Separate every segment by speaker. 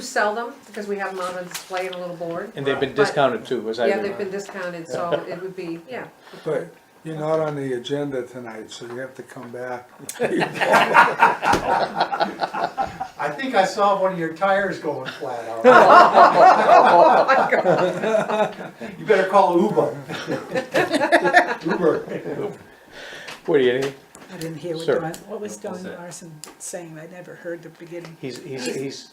Speaker 1: sell them, because we have them on a display and a little board.
Speaker 2: And they've been
Speaker 1: Right.
Speaker 2: discounted too, as I
Speaker 1: Yeah, they've been
Speaker 2: remember.
Speaker 1: discounted, so it would be, yeah.
Speaker 3: But you're not on the agenda tonight, so you have to come back.
Speaker 4: I think I saw one of your tires going flat out.
Speaker 1: Oh, my God.
Speaker 4: You better call Uber. Uber.
Speaker 2: Woody, anything?
Speaker 5: I didn't hear what
Speaker 2: Sir.
Speaker 5: Don, what was Don Larson saying, I never heard the beginning.
Speaker 2: He's, he's, he's,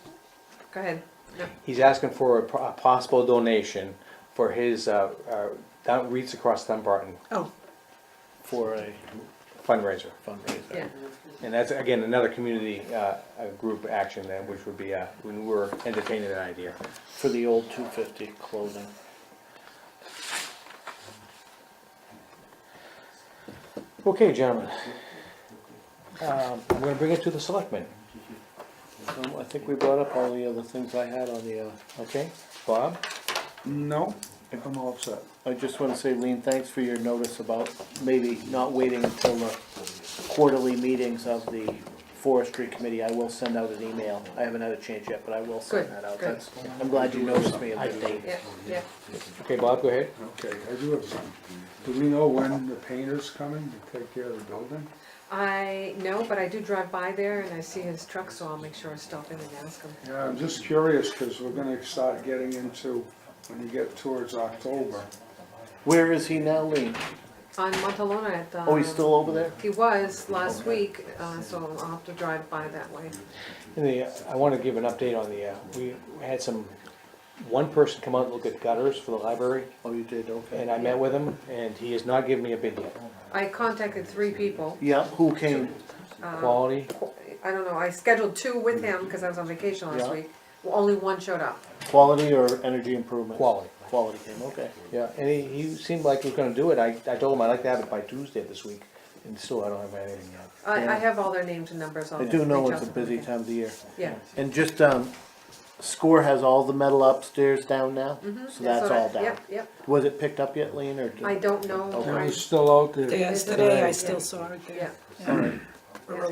Speaker 1: Go ahead. No.
Speaker 2: he's asking for a po- a possible donation for his, uh, uh, down, Reeds Across Dunbarton
Speaker 5: Oh,
Speaker 6: for a
Speaker 2: fundraiser.
Speaker 6: fundraiser.
Speaker 1: Yeah,
Speaker 2: And that's, again, another community, uh, uh, group action that, which would be, uh, when we were entertaining that idea.
Speaker 6: For the old two fifty clothing.
Speaker 2: Okay, gentlemen. Um, I'm gonna bring it to the selectmen,
Speaker 6: Um, I think we brought up all the other things I had on the, uh,
Speaker 2: okay? Bob?
Speaker 3: No, I'm all set.
Speaker 6: I just wanna say, Lean, thanks for your notice about maybe not waiting until the quarterly meetings of the forestry committee. I will send out an email. I haven't had a chance yet, but I will send
Speaker 1: Good,
Speaker 6: that out.
Speaker 1: good.
Speaker 6: That's, I'm glad you noticed me at the date.
Speaker 1: yeah, yeah.
Speaker 2: Okay, Bob, go ahead.
Speaker 3: Okay, I do have some. Do we know when the painter's coming to take care of the building?
Speaker 1: I know, but I do drive by there and I see his truck, so I'll make sure I stop in and ask him.
Speaker 3: Yeah, I'm just curious, because we're gonna start getting into, when you get towards October.
Speaker 6: Where is he now, Lean?
Speaker 1: On Montalona at the.
Speaker 6: Oh, he's still over there?
Speaker 1: He was last week, uh, so I'll have to drive by that way.
Speaker 2: And the, I want to give an update on the, uh, we had some, one person come out and look at gutters for the library,
Speaker 6: Oh, you did, okay.
Speaker 2: and I met with him, and he has not given me a bid yet.
Speaker 1: I contacted three people.
Speaker 6: Yeah, who came?
Speaker 2: Quality,
Speaker 1: I don't know, I scheduled two with him because I was on vacation last
Speaker 6: Yeah.
Speaker 1: week. Well, Only one showed up.
Speaker 6: Quality or energy improvement?
Speaker 2: Quality.
Speaker 6: Quality came, okay.
Speaker 2: yeah, and he, he seemed like he was gonna do it, I, I told him I'd like to have it by Tuesday this week, and still I don't have anything yet.
Speaker 1: I, I
Speaker 6: Yeah.
Speaker 1: have all their names and numbers on.
Speaker 6: I do know it's a
Speaker 1: reach out to
Speaker 6: busy
Speaker 1: them.
Speaker 6: time of the year.
Speaker 1: Yeah,
Speaker 6: And just, um, SCORE has all the metal upstairs down now, so
Speaker 1: Yeah,
Speaker 6: that's
Speaker 1: so
Speaker 6: all
Speaker 1: that-
Speaker 6: down.
Speaker 1: Yep, yep.
Speaker 6: Was it picked up yet, Lean, or? did-
Speaker 1: Mm-hmm. I don't know.
Speaker 6: Okay.
Speaker 1: I-
Speaker 3: It's still out there.
Speaker 5: yesterday, I still saw it
Speaker 1: Yeah.
Speaker 5: there.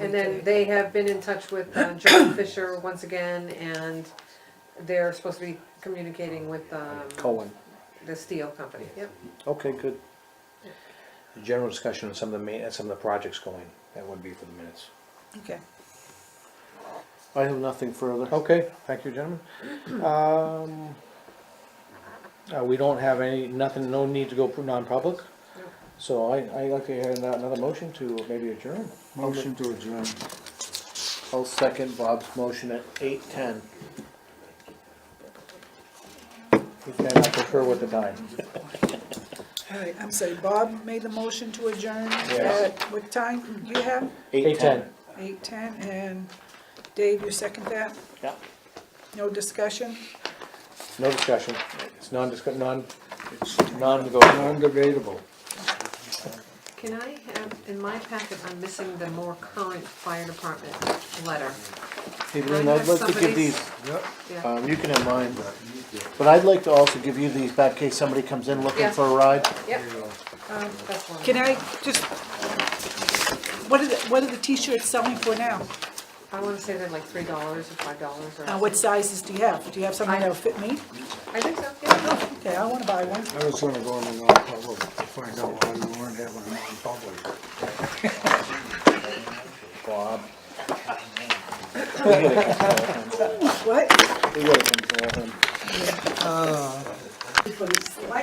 Speaker 1: And then they have been in touch with uh, John Fisher once again and they're supposed to be communicating with, um,
Speaker 2: Cohen,
Speaker 1: the steel company. Yep,
Speaker 6: Okay, good.
Speaker 2: general discussion on some of the main, some of the projects going, that would be for the minutes.
Speaker 5: Okay.
Speaker 6: I have nothing further.
Speaker 2: Okay, thank you, gentlemen. Um, uh, we don't have any, nothing, no need to go non-public,
Speaker 1: Nope.
Speaker 2: so I, I like to hear another motion to maybe adjourn.
Speaker 3: Motion to adjourn.
Speaker 6: I'll second Bob's motion at eight ten.
Speaker 2: And I prefer with the time.
Speaker 5: All right, I'm sorry, Bob made the motion to adjourn
Speaker 2: Yes.
Speaker 5: at what time do you have?
Speaker 2: Eight ten.
Speaker 5: Eight ten, and Dave, you second that?
Speaker 6: Yeah.
Speaker 5: No discussion?
Speaker 2: No discussion. It's non-discuss, non,
Speaker 3: It's
Speaker 2: non-negotiable.
Speaker 3: non-debatable.
Speaker 1: Can I have, in my packet, I'm missing the more current fire department letter.
Speaker 6: Hey, Lean, I'd like to give these,
Speaker 3: Yep.
Speaker 1: Yeah,
Speaker 6: um, you can have mine, but I'd like to also give you these back in case somebody comes in looking
Speaker 1: Yeah.
Speaker 6: for a ride.
Speaker 1: yep. Um, That's one.
Speaker 5: Can I just, what are the, what are the t-shirts selling for now?
Speaker 1: I wanna say they're like three dollars or five dollars or.
Speaker 5: Uh, what sizes do you have? Do you have something that'll fit me?
Speaker 1: I think so, yeah.
Speaker 5: Okay, I wanna buy one.
Speaker 3: I was gonna go in the non-public, find out why we weren't having a non-public.
Speaker 2: Bob.
Speaker 5: What? Uh,
Speaker 6: We would've been to all of them.